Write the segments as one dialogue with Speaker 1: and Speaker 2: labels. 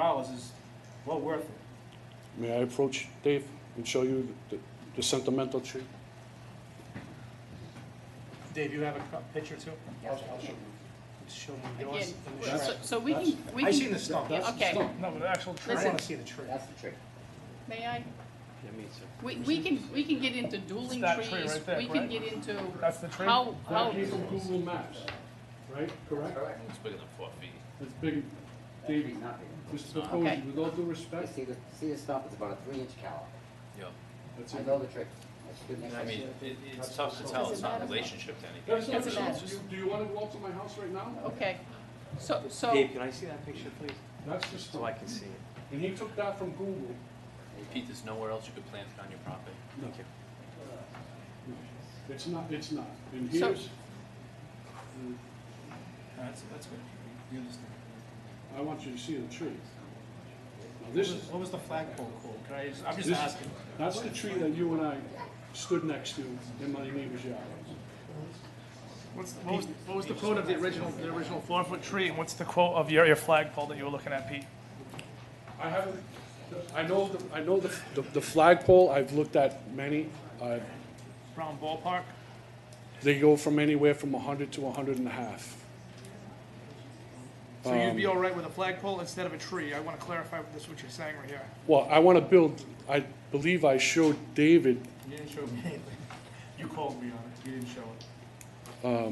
Speaker 1: dollars is well worth it.
Speaker 2: May I approach Dave and show you the- the sentimental tree?
Speaker 3: Dave, you have a co- picture too? Show me yours.
Speaker 4: Again,
Speaker 3: and
Speaker 4: we're-
Speaker 3: the
Speaker 4: so,
Speaker 3: shrub.
Speaker 4: so we can, we
Speaker 3: I
Speaker 4: can.
Speaker 3: seen the stump.
Speaker 4: Yeah, Okay,
Speaker 3: No, but the actual tree, I
Speaker 4: Listen.
Speaker 3: want to see the tree.
Speaker 5: That's the trick.
Speaker 4: may I? We, we can, we can get into dueling
Speaker 3: that tree
Speaker 4: trees,
Speaker 3: right there,
Speaker 4: we can
Speaker 3: correct?
Speaker 4: get into
Speaker 3: That's the tree?
Speaker 4: how, how,
Speaker 2: Google Maps, right, correct?
Speaker 6: It's bigger than four feet.
Speaker 2: It's big,
Speaker 5: Actually,
Speaker 2: Davey,
Speaker 5: not big.
Speaker 2: Mr.
Speaker 4: Okay.
Speaker 2: Capozzi, with all due
Speaker 5: You
Speaker 2: respect,
Speaker 5: see the, see the stump, it's about a three inch caliper.
Speaker 6: Yeah.
Speaker 2: that's
Speaker 5: I
Speaker 2: it.
Speaker 5: know the trick. I stood next
Speaker 6: I
Speaker 5: to
Speaker 6: mean,
Speaker 5: it.
Speaker 6: it, it's tough to tell, it's not in relationship to anything.
Speaker 2: That's not
Speaker 4: Doesn't
Speaker 2: true.
Speaker 4: matter.
Speaker 2: Do you- Do you want to go up to my house right now?
Speaker 4: okay, so, so.
Speaker 7: Dave, can I see that picture, please?
Speaker 2: That's the
Speaker 7: So I
Speaker 2: stump.
Speaker 7: can see it.
Speaker 2: And he took that from Google.
Speaker 6: Pete, there's nowhere else you could plant it on your property.
Speaker 2: No,
Speaker 7: Thank you.
Speaker 2: it's not, it's not. And
Speaker 4: So-
Speaker 2: here's,
Speaker 1: That's, that's good. You understand.
Speaker 2: I want you to see the tree. Now, this is,
Speaker 1: What was the flagpole called? Can I just, I'm just
Speaker 2: This-
Speaker 1: asking.
Speaker 2: That's the tree that you and I stood next to in my neighbor's yard.
Speaker 3: What's, the- what was, what was the quote of the original, the original four-foot tree, and what's the quote of your, your flagpole that you were looking at, Pete?
Speaker 2: I haven't, I know, the- I know the, the- the flagpole, I've looked at many. Uh,
Speaker 3: Brown ballpark?
Speaker 2: They go from anywhere from 100 to 100 and a half.
Speaker 3: So you'd be all right with a flagpole instead of a tree? I want to clarify this, what you're saying right here.
Speaker 2: Well, I want to build, I believe I showed David,
Speaker 1: You didn't show me anything. You called me on it. You didn't show it.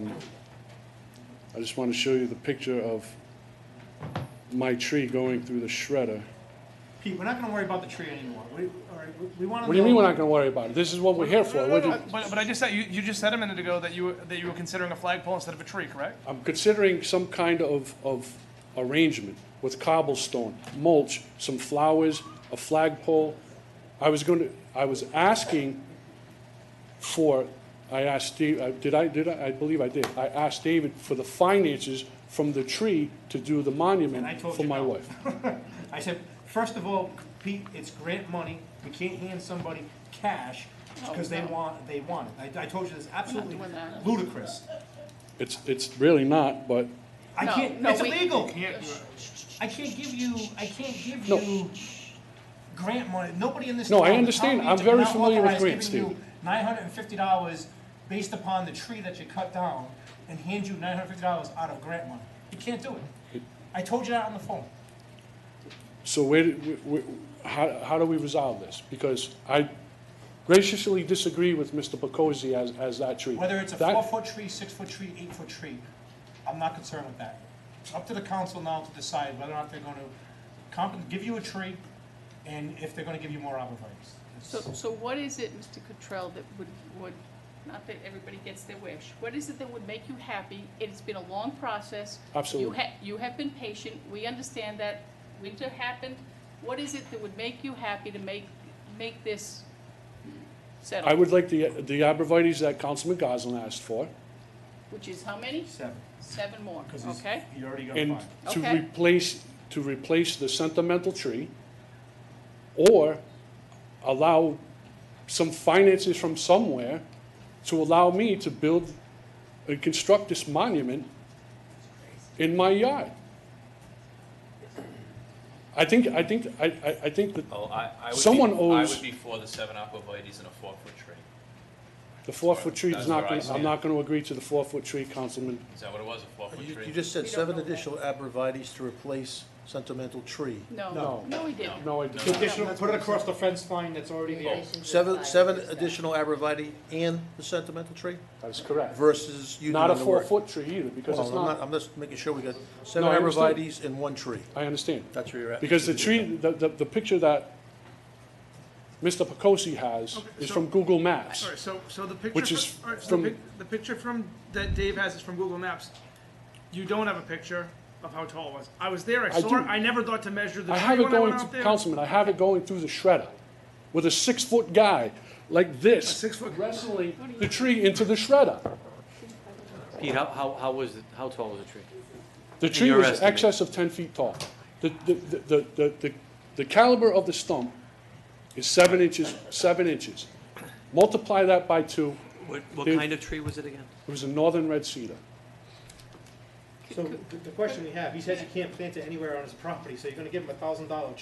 Speaker 2: I just want to show you the picture of my tree going through the shredder.
Speaker 3: Pete, we're not going to worry about the tree anymore. We, all right, we- we want to.
Speaker 2: What do you mean we're not going to worry about it? This is what we're here for. We're
Speaker 3: But,
Speaker 2: the-
Speaker 3: but I just said, you, you just said a minute ago that you, were- that you were considering a flagpole instead of a tree, correct?
Speaker 2: I'm considering some kind of, of arrangement with cobblestone, mulch, some flowers, a flagpole. I was going to, I was asking for, I asked Steve, I- did I, did I, I believe I did. I asked David for the finances from the tree to do the
Speaker 8: I
Speaker 2: monument
Speaker 8: told
Speaker 2: for
Speaker 8: you
Speaker 2: my
Speaker 8: no.
Speaker 2: wife.
Speaker 8: I said, first of all, Pete, it's grant money, we can't hand somebody cash because they
Speaker 4: Oh, no.
Speaker 8: want, they want it. I, I told you this absolutely
Speaker 4: doing that.
Speaker 8: ludicrous.
Speaker 2: It's, it's really not, but,
Speaker 8: I
Speaker 4: No,
Speaker 8: can't,
Speaker 4: no,
Speaker 8: it's
Speaker 4: we-
Speaker 8: illegal.
Speaker 3: Can't do it.
Speaker 8: I can't give you, I can't give
Speaker 2: No.
Speaker 8: you grant money, nobody in this
Speaker 2: No,
Speaker 8: town.
Speaker 2: I understand.
Speaker 8: the town
Speaker 2: I'm
Speaker 8: meeting
Speaker 2: very
Speaker 8: did not
Speaker 2: familiar with
Speaker 8: authorize
Speaker 2: grants,
Speaker 8: giving you
Speaker 2: Steve.
Speaker 8: Nine hundred and fifty dollars based upon the tree that you cut down and hand you nine hundred and fifty dollars out of grant money. You can't do it. I told you that on the phone.
Speaker 2: so where, did- wh- wh- how, how do we resolve this? Because I graciously disagree with Mr. Pacozzi as, as that tree.
Speaker 8: Whether it's a
Speaker 2: That-
Speaker 8: four-foot tree, six-foot tree, eight-foot tree, I'm not concerned with that. It's up to the council now to decide whether or not they're gonna comp, give you a tree, and if they're gonna give you more arborvitae's.
Speaker 4: So,
Speaker 8: It's-
Speaker 4: so what is it, Mr. Cottrell, that would, would, not that everybody gets their wish, what is it that would make you happy? It's been a long process.
Speaker 2: Absolutely.
Speaker 4: You ha- you have been patient, we understand that, winter happened. What is it that would make you happy to make, make this
Speaker 2: I
Speaker 4: settle?
Speaker 2: would like the, the arborvitae's that Councilman Goslin asked for,
Speaker 4: Which is how many?
Speaker 8: Seven,
Speaker 4: Seven more,
Speaker 8: because
Speaker 4: okay?
Speaker 8: you already got
Speaker 2: and
Speaker 8: five.
Speaker 2: to
Speaker 4: Okay.
Speaker 2: replace, to replace the sentimental tree, or allow some finances from somewhere to allow me to build and construct this monument in my yard. I think, I think, I, I, I think that
Speaker 6: Oh, I, I would be.
Speaker 2: Someone
Speaker 6: I
Speaker 2: owes-
Speaker 6: would be for the seven aquavites and a four-foot tree.
Speaker 2: the four-foot tree is
Speaker 6: That's
Speaker 2: not
Speaker 6: where I
Speaker 2: gonna, I'm
Speaker 6: stand.
Speaker 2: not gonna agree to the four-foot tree, Councilman.
Speaker 6: Is that what it was, a four-foot
Speaker 9: You
Speaker 6: tree?
Speaker 9: you just said
Speaker 4: We don't
Speaker 9: seven
Speaker 4: know that.
Speaker 9: additional abrevieties to replace sentimental tree.
Speaker 4: No,
Speaker 2: No.
Speaker 4: no, we didn't.
Speaker 2: No, I don't.
Speaker 3: Additional, put it across the fence line that's already there.
Speaker 9: Seven, seven additional abreviate and the sentimental tree
Speaker 2: That's correct.
Speaker 9: versus you
Speaker 2: Not a
Speaker 9: doing the work.
Speaker 2: four-foot tree either, because
Speaker 9: Well,
Speaker 2: it's
Speaker 9: I'm not,
Speaker 2: not,
Speaker 9: I'm just making sure we got seven
Speaker 2: I understand.
Speaker 9: abreviates and one tree.
Speaker 2: I understand.
Speaker 9: That's where you're at.
Speaker 2: Because the tree, the, the, the picture that Mr. Pocosi has is
Speaker 3: so-
Speaker 2: from Google Maps.
Speaker 3: All right, so, so the picture.
Speaker 2: Which
Speaker 3: fr-
Speaker 2: is
Speaker 3: all right, so
Speaker 2: from-
Speaker 3: The pic- the picture from, that Dave has is from Google Maps. You don't have a picture of how tall it was. I was there, I
Speaker 2: I
Speaker 3: saw it,
Speaker 2: do.
Speaker 3: I never thought to measure the
Speaker 2: I
Speaker 3: tree
Speaker 2: have it
Speaker 3: when I
Speaker 2: going,
Speaker 3: went out
Speaker 2: through-
Speaker 3: there.
Speaker 2: Councilman, I have it going through the shredder with a six-foot guy like this,
Speaker 3: Six-foot-
Speaker 2: wrestling the tree into the shredder.
Speaker 7: Pete, how, how, how was, it- how tall was the tree?
Speaker 2: The tree
Speaker 7: your
Speaker 2: was
Speaker 7: estimate.
Speaker 2: excess of ten feet tall. The, the, the- the, the, the, the caliber of the stump is seven inches, seven inches. Multiply that by two,
Speaker 7: What, what
Speaker 2: Dude.
Speaker 7: kind of tree was it again?
Speaker 2: it was a northern red cedar.
Speaker 10: could-
Speaker 8: So
Speaker 10: could-
Speaker 8: the- the question we have, he says you can't plant it anywhere on his property, so you're gonna give him a thousand dollar